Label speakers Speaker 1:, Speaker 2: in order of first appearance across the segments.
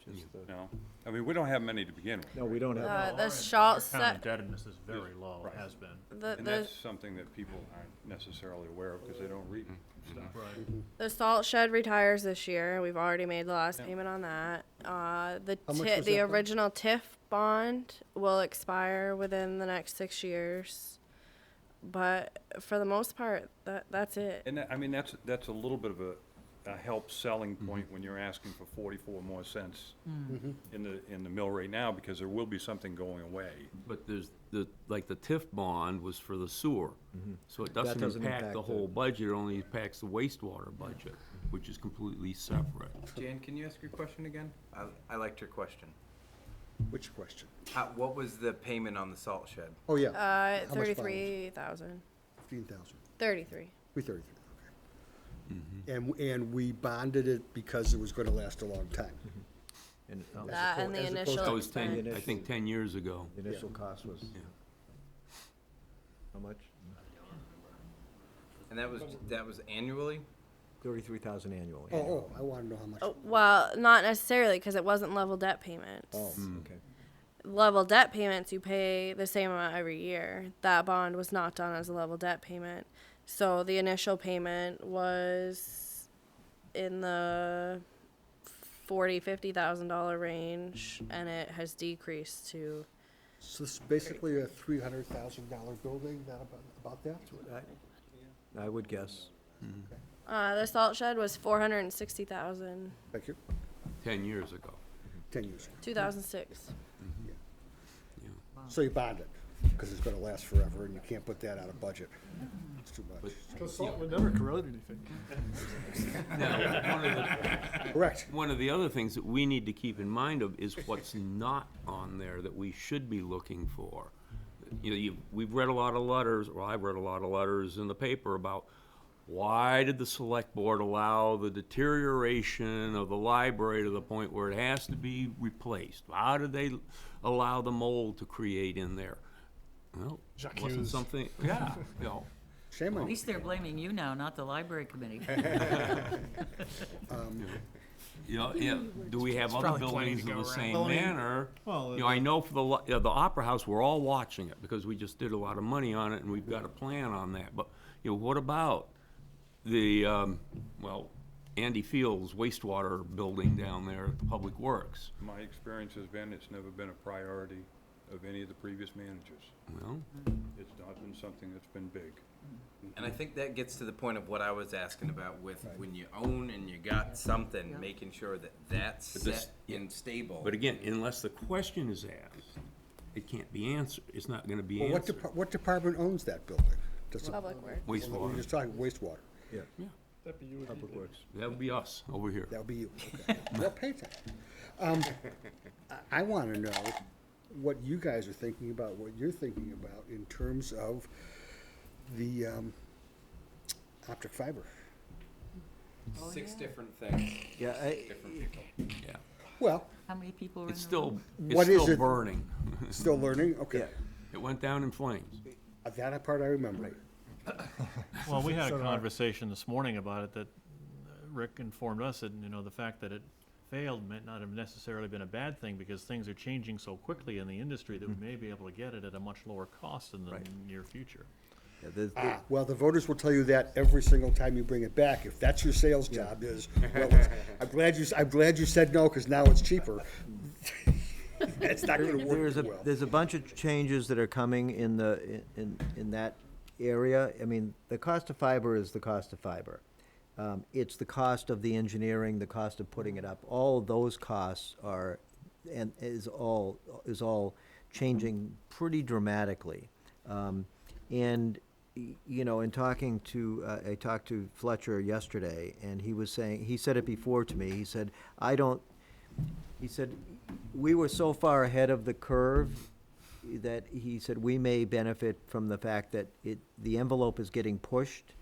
Speaker 1: opinion.
Speaker 2: No, I mean, we don't have many to begin with.
Speaker 1: No, we don't have,
Speaker 3: Uh,
Speaker 4: Well,
Speaker 3: the
Speaker 4: our
Speaker 3: shall,
Speaker 4: Town
Speaker 3: se-
Speaker 4: indebtedness is very low,
Speaker 2: Right.
Speaker 4: has been,
Speaker 3: the,
Speaker 2: And
Speaker 3: the,
Speaker 2: that's something that people aren't necessarily aware of because they don't read stuff.
Speaker 4: right?
Speaker 3: the salt shed retires this year. We've already made the last
Speaker 2: Yeah.
Speaker 3: payment on that. Uh, the
Speaker 1: How much
Speaker 3: ti-
Speaker 1: was
Speaker 3: the
Speaker 1: that, though?
Speaker 3: original TIF bond will expire within the next six years. But for the most part, that, that's it.
Speaker 2: And that, I mean, that's, that's a little bit of a, a help selling point when you're asking for forty-four more cents in the, in the mill rate now because there will be something going away.
Speaker 5: But there's, the, like, the TIF bond was for the sewer, so it Mm-hmm. doesn't
Speaker 1: doesn't
Speaker 5: impact
Speaker 1: impact
Speaker 5: the
Speaker 1: the-
Speaker 5: whole budget, it only impacts the wastewater budget, which is completely separate.
Speaker 6: Jan, can you ask your question again? I, I liked your question.
Speaker 1: which question?
Speaker 6: How, what was the payment on the salt shed?
Speaker 1: Oh, yeah.
Speaker 3: Uh,
Speaker 1: How much balance?
Speaker 3: thirty-three thousand.
Speaker 1: Fifteen thousand,
Speaker 3: Thirty-three.
Speaker 1: three thirty-three, okay. And, and we bonded it because it was gonna last a long time.
Speaker 3: That and the
Speaker 1: as opposed
Speaker 5: That
Speaker 3: initial
Speaker 5: was
Speaker 3: expense.
Speaker 5: ten, I think, ten years ago.
Speaker 7: uh, The initial cost was, how much?
Speaker 6: And that was, that was annually?
Speaker 7: Thirty-three thousand annually.
Speaker 1: Oh, oh, I wanna know how much.
Speaker 3: Oh, Well, not necessarily, because it wasn't level debt payments.
Speaker 7: Oh, okay.
Speaker 3: level debt payments you pay the same amount every year that bond was not done as a level debt payment so the initial payment was in the 40 50 thousand dollar range and it has decreased to
Speaker 1: So this is basically a three hundred thousand dollar building, that about, about that?
Speaker 7: I- I would guess.
Speaker 3: uh, the salt shed was 460 thousand
Speaker 1: Thank you,
Speaker 5: ten years ago.
Speaker 1: ten years.
Speaker 3: 2006
Speaker 1: So you bond it, cause it's gonna last forever and you can't put that out of budget. It's too much.
Speaker 8: Salt would never corrode anything.
Speaker 5: Now, one of the,
Speaker 1: Correct.
Speaker 5: one of the other things that we need to keep in mind of is what's not on there that we should be looking for. You know, you, we've read a lot of letters, or I've read a lot of letters in the paper about why did the select board allow the deterioration of the library to the point where it has to be replaced? How did they allow the mold to create in there? Well,
Speaker 8: Jacques
Speaker 5: wasn't
Speaker 8: Hughes.
Speaker 5: something, yeah, you know.
Speaker 1: Shame on
Speaker 9: At
Speaker 1: you.
Speaker 9: least they're blaming you now, not the library committee.
Speaker 5: You know, yeah, do we have other
Speaker 8: probably planning
Speaker 5: buildings
Speaker 8: to
Speaker 5: in
Speaker 8: go
Speaker 5: the
Speaker 8: around.
Speaker 5: same
Speaker 8: Well, I mean,
Speaker 5: manner?
Speaker 8: well,
Speaker 5: You know, I know for the, li- yeah, the Opera House, we're all watching it, because we just did a lot of money on it, and we've got a plan on that, but, you know, what about the, um, well, Andy Fields wastewater building down there at the Public Works?
Speaker 2: My experience has been, it's never been a priority of any of the previous managers.
Speaker 5: Well,
Speaker 2: It's not been something that's been big.
Speaker 6: And I think that gets to the point of what I was asking about with when you own and you got something, making sure that that's
Speaker 5: But this-
Speaker 6: set and stable.
Speaker 5: but again, unless the question is asked, it can't be answered, it's not gonna be
Speaker 1: Well, what
Speaker 5: answered.
Speaker 1: depart, what department owns that building? Does the-
Speaker 3: public work
Speaker 1: We're
Speaker 5: Wastewater,
Speaker 1: just talking wastewater.
Speaker 8: That'd be you would eat it.
Speaker 5: that would be us over here.
Speaker 1: That'll be you, okay. Well, pay attention. Um, I, I wanna know what you guys are thinking about, what you're thinking about in terms of the, um, optic fiber.
Speaker 6: Six different things,
Speaker 7: Yeah, I,
Speaker 6: different people.
Speaker 5: Yeah.
Speaker 1: Well,
Speaker 9: How many people are in the room?
Speaker 5: It's still, it's
Speaker 1: What is
Speaker 5: still
Speaker 1: it-
Speaker 5: burning,
Speaker 1: still learning, okay.
Speaker 7: Yeah.
Speaker 5: it went down in flames.
Speaker 1: Uh, That part I remember.
Speaker 4: Well, we had a conversation this morning about it that uh, Rick informed us that, you know, the fact that it failed might not have necessarily been a bad thing because things are changing so quickly in the industry that we
Speaker 8: Mm-hmm.
Speaker 4: may be able to get it at a much lower cost in the near future.
Speaker 7: yeah, there's-
Speaker 1: Ah, well, the voters will tell you that every single time you bring it back, if that's your sales job is. well, it's- I'm glad you, s- I'm glad you said no, cause now it's cheaper. It's not gonna work
Speaker 7: There's a,
Speaker 1: too well.
Speaker 7: there's a bunch of changes that are coming in the, in- in, in that area. I mean, the cost of fiber is the cost of fiber. Um, it's the cost of the engineering, the cost of putting it up. All of those costs are, and is all, is all changing pretty dramatically. Um, and, y- you know, in talking to, uh, I talked to Fletcher yesterday, and he was saying, he said it before to me, he said, I don't, he said, we were so far ahead of the curve that he said we may benefit from the fact that it, the envelope is getting pushed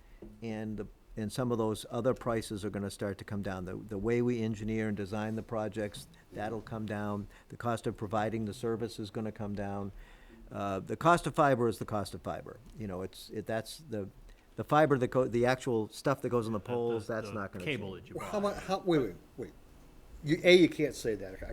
Speaker 7: and the, and some of those other prices are gonna start to come down. The, the way we engineer and design the projects, that'll come down. The cost of providing the service is gonna come down. Uh, the cost of fiber is the cost of fiber. You know, it's, it, that's the, the fiber that go, the actual stuff that goes on the
Speaker 4: The-
Speaker 7: poles,
Speaker 4: the-
Speaker 7: that's
Speaker 4: the
Speaker 7: not gonna change.
Speaker 4: Cable that you buy.
Speaker 1: How mu, how, wait, wait, wait. You, A, you can't say that,